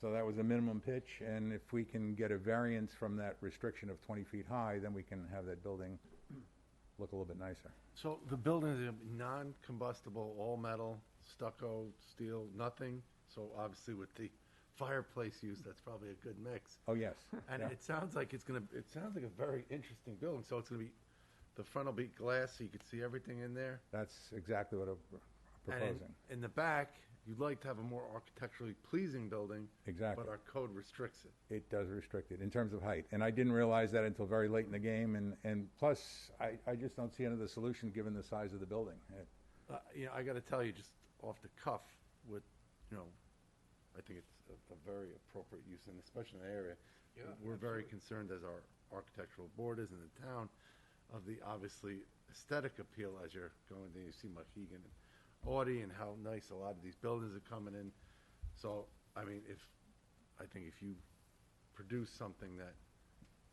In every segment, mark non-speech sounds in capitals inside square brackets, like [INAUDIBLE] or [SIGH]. So that was the minimum pitch, and if we can get a variance from that restriction of 20 feet high, then we can have that building look a little bit nicer. So the building is gonna be non-combustible, all metal, stucco, steel, nothing. So obviously with the fireplace use, that's probably a good mix. Oh, yes. [LAUGHS] And yeah. it sounds like it's gonna, it sounds like a very interesting building. So it's gonna be, the front will be glass, so you can see everything in there. That's exactly what I'm And in- proposing. In the back, you'd like to have a more architecturally pleasing building. Exactly. But our code restricts it. It does restrict it in terms of height, and I didn't realize that until very late in the game, and, and plus, I, I just don't see another solution given the size of the building. It- Uh, you know, I got to tell you, just off the cuff, with you know, I think it's a, a very appropriate use, and especially in the area. Yeah, we're very concerned, as our architectural board is in the town, of the obviously aesthetic appeal as you're going there. You see Mohegan and Audi, and how nice a lot of these buildings are coming in. So, I mean, if I think if you produce something that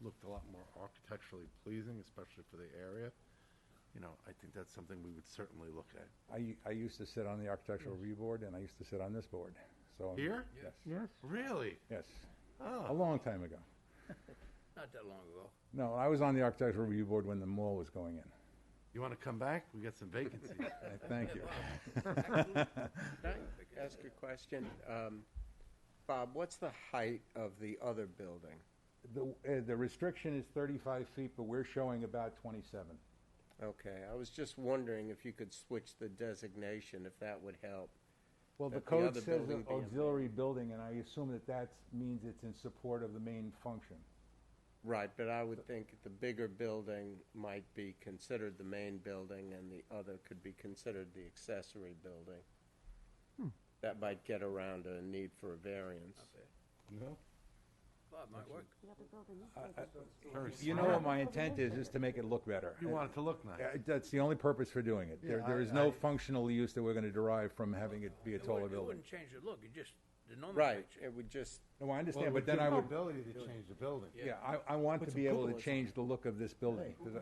looked a lot more architecturally pleasing, especially for the area, you know, I think that's something we would certainly look at. I, I used to sit on the architectural review board, and I used to sit on this board, so. Here? Yes, Yes. Really? yes, a Oh, long time ago. Not that long ago. No, I was on the architectural review board when the mall was going in. you want to come back? We got some vacancies. Uh, Thank you. Can I ask a question? Um, Bob, what's the height of the other building? The, uh, the restriction is thirty-five feet, but we're showing about twenty-seven. Okay, I was just wondering if you could switch the designation, if that would help. Well, the That the code other says building be a- auxiliary building, and I assume that that means it's in support of the main function. Right, but I would think the bigger building might be considered the main building and the other could be considered the accessory building. That might get around a need for a variance. [LAUGHS] No? Bob, might work. You know what my intent is, is to make it look better. You want it to look nice. Uh, That's the only purpose for doing it. There, Yeah, there I- is no I- functional use that we're gonna derive from having it be a It taller wouldn't- It building. wouldn't change the look, it just, the Right, nomenclature. it would just, No, I Well, understand, it but would then give I you would, Ability to change the building. yeah, I, I want to be able to Google it. change the look of this building. 'cause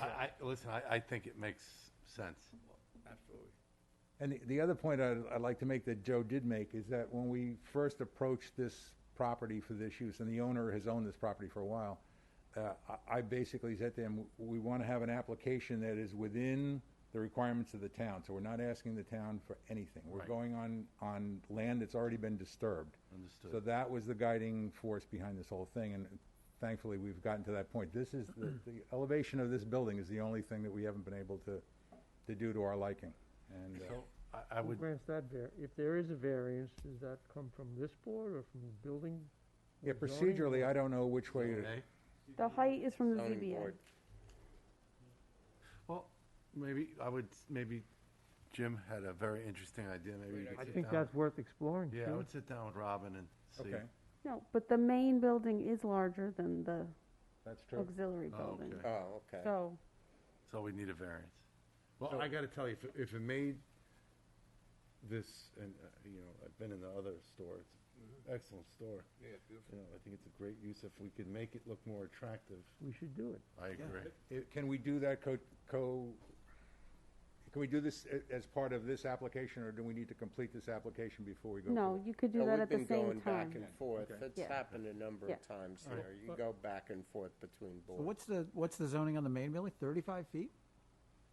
I- I, I, listen, I, I think it makes sense. Absolutely. And the, the other point I'd, I'd like to make that Joe did make is that when we first approached this property for this use, and the owner has owned this property for a while, uh, I, I basically said to him, we want to have an application that is within the requirements of the town. So we're not asking the town for anything. We're Right. going on, on land that's already been disturbed. Understood. So that was the guiding force behind this whole thing, and thankfully, we've gotten to that point. This is, the, the elevation of this building is the only thing that we haven't been able to, to do to our liking. And, uh, So I, I Who would, grants that var, if there is a variance, does that come from this board or from the building? Yeah, or zoning? procedurally, I don't know which way, to- okay, The height is from the zoning ZBA. board. well, maybe, I would, maybe Jim had a very interesting idea, maybe you Great could I sit think down- that's worth exploring, Yeah, I too. would sit down with Robin and see. okay, No, but the main building is larger than the that's true. auxiliary Oh, building. okay. Oh, okay. So, So we need a variance. Well, I got to tell you, if, it- if it made this, and, uh, you know, I've been in the other store, it's an Mm-hmm. excellent store. Yeah, beautiful. You know, I think it's a great use if we could make it look more attractive. We should do it. I agree. It- Uh, Can we do that co, co, can we do this a- as part of this application, or do we need to complete this application before we go? no, forward? you could do No, that at the We've been going same back and time. forth. It's Yeah. happened a number Yeah. of times there. You go back and forth between So boards. What's the, what's the zoning on the main building? Thirty-five feet?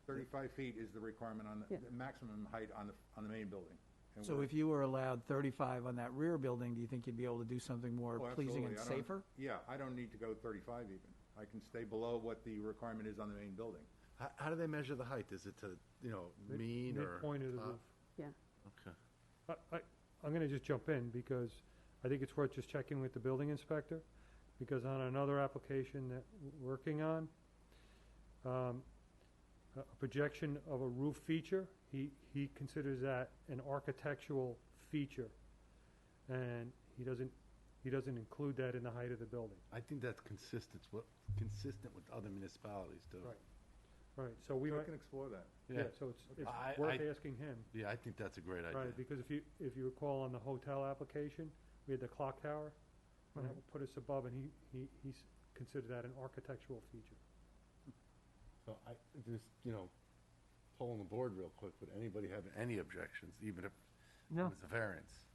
Thirty-five feet is the requirement on, the Yeah. the maximum height on the, on the main building. And So we're- if you were allowed thirty-five on that rear building, do you think you'd be able to do something more Oh, pleasing absolutely. and I don't- safer? Yeah, I don't need to go thirty-five even. I can stay below what the requirement is on the main building. How, how do they measure the height? Is it to, you know, Mid- mean or? midpoint of the top? roof. Yeah. Okay. I, I, I'm gonna just jump in because I think it's worth just checking with the building inspector, because on another application that we're working on, um, a a projection of a roof feature, he, he considers that an architectural feature. And he doesn't, he doesn't include that in the height of the building. I think that's consistent, with consistent with other municipalities too. Right. Right, so we So I might, can explore that. yeah, so it's, I- it's worth I- asking him. Yeah, I think that's a great idea. Right, because if you, if you recall on the hotel application, we had the clock tower, and Mm-hmm. that put us above, and he, he, he s- considered that an architectural feature. So I, just, you know, polling the board real quick, would anybody have any objections, even if it No. was a variance?